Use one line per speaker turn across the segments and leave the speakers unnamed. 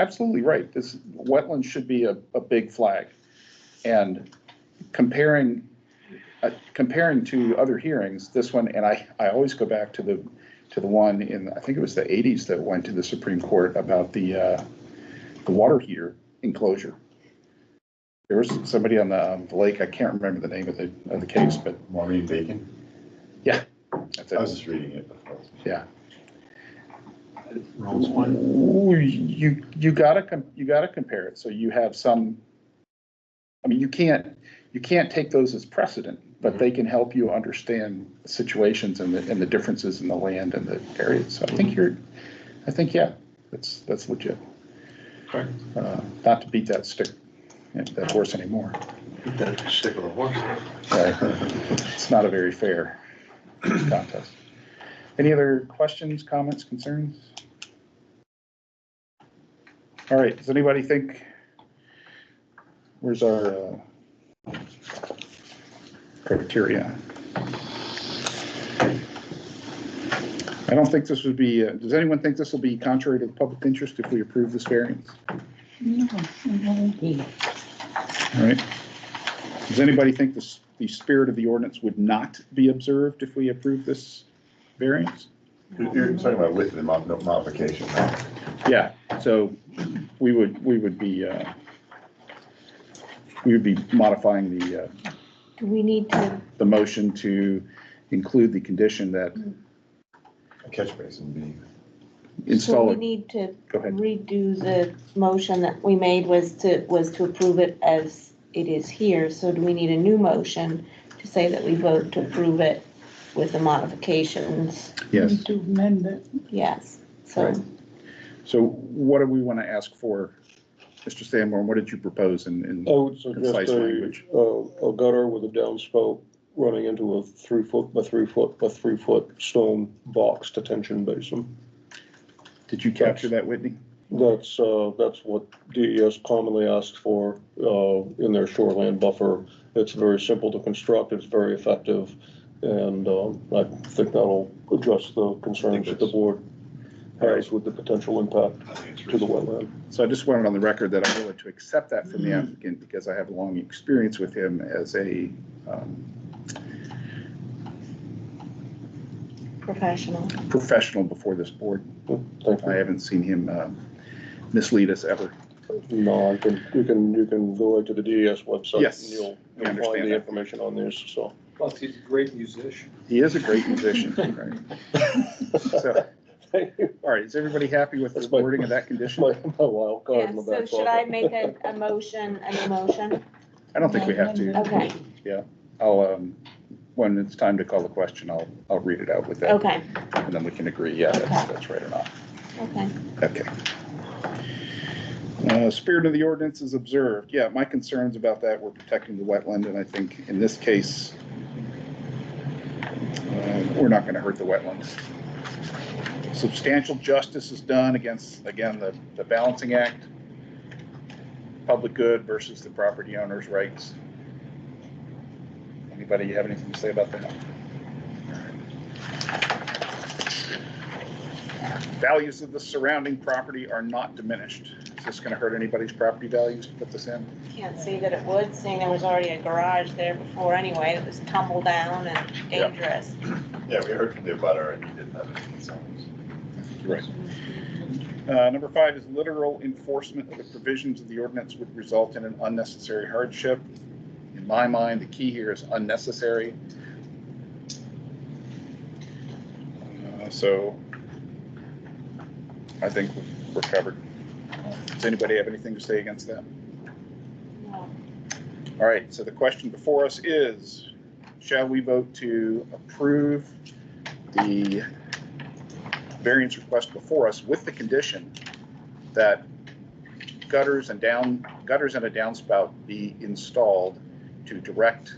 absolutely right. This, wetlands should be a, a big flag. And comparing, uh, comparing to other hearings, this one, and I, I always go back to the, to the one in, I think it was the eighties that went to the Supreme Court about the, uh, the water heater enclosure. There was somebody on the um, lake, I can't remember the name of the, of the case, but
Maureen Bacon?
that's
I was
it,
just reading it before.
yeah.
Rollins one.
Ooh, You, you gotta, com- you gotta compare it, so you have some, I mean, you can't, you can't take those as precedent, but they can help you understand situations and the, and the differences in the land and the areas, so I think you're, I think, yeah, that's, that's legit.
Okay.
Uh, Not to beat that stick, that horse anymore,
That stick of a horse.
it's not a very fair contest. Any other questions, comments, concerns? All right, does anybody think, where's our uh, criteria? I don't think this would be, uh, does anyone think this will be contrary to the public interest if we approve this variance?
No, no, he-
All right. Does anybody think this, the spirit of the ordinance would not be observed if we approve this variance?
You're you're talking about with the mo- no- modification, right?
Yeah, so we would, we would be, uh, we would be modifying the, uh,
Do we need to,
the motion to include the condition that
a catch basin being,
so
install
we
it.
need to
Go ahead.
redo the motion that we made was to, was to approve it as it is here. So do we need a new motion to say that we vote to approve it with the modifications?
Yes.
To amend it.
Yes, so
Right. So what do we want to ask for? Mr. Sanborn, what did you propose in, in?
I would suggest
Concise
a,
language.
uh, a gutter with a downspout running into a three foot by three foot by three foot stone box detention basin.
Did you capture that, Whitney?
That's, uh, that's what DES commonly asks for, uh, in their shoreland buffer. It's very simple to construct, it's very effective, and, um, I think that'll address the concerns that the board has with the potential impact to the wetland.
So I just wanted on the record that I'm willing to accept that from the
Mm-hmm.
applicant because I have long experience with him as a, um,
professional.
professional before this board.
Thank you.
I haven't seen him um, mislead us ever.
No, I can, you can, you can go right to the DES website.
Yes,
and You'll,
I
you'll
understand
find the
that.
information on this, so.
Plus, he's a great musician.
He is a great musician, right? So,
Thank you.
All right, is everybody happy with the
That's my-
wording of that
It's
condition?
my, my wild card
Yeah,
in the
so
back
should I
pocket.
make a, a motion, a new motion?
I don't think we have to.
Okay,
I'll, um, when it's time to call the question, I'll, I'll read it out with that.
okay,
And then we can agree, yeah, that's, that's right or not.
okay.
Okay. Uh, Spirit of the ordinance is observed. Yeah, my concerns about that were protecting the wetland, and I think in this case, uh, we're not going to hurt the wetlands. Substantial justice is done against, again, the, the balancing act, public good versus the property owner's rights. Anybody have anything to say about that? Values of the surrounding property are not diminished. Is this going to hurt anybody's property values to put this in?
Can't see that it would, seeing there was already a garage there before anyway, that was tumble down and
Yeah.
dangerous.
yeah, we heard from the butter and he didn't have any concerns.
Right. Uh, Number five is literal enforcement of the provisions of the ordinance would result in an unnecessary hardship. In my mind, the key here is unnecessary. Uh, So I think we're covered. Does anybody have anything to say against that?
No.
All right, so the question before us is, shall we vote to approve the variance request before us with the condition that gutters and down, gutters and a downspout be installed to direct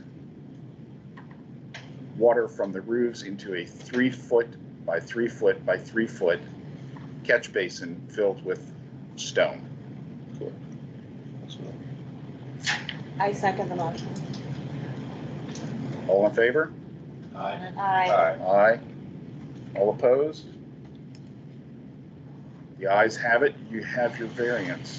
water from the roofs into a three-foot by three-foot by three-foot catch basin filled with stone?
I second the motion.
All in favor?
Aye.
Aye.
Aye.
Aye. All opposed? The ayes have it, you have your variance.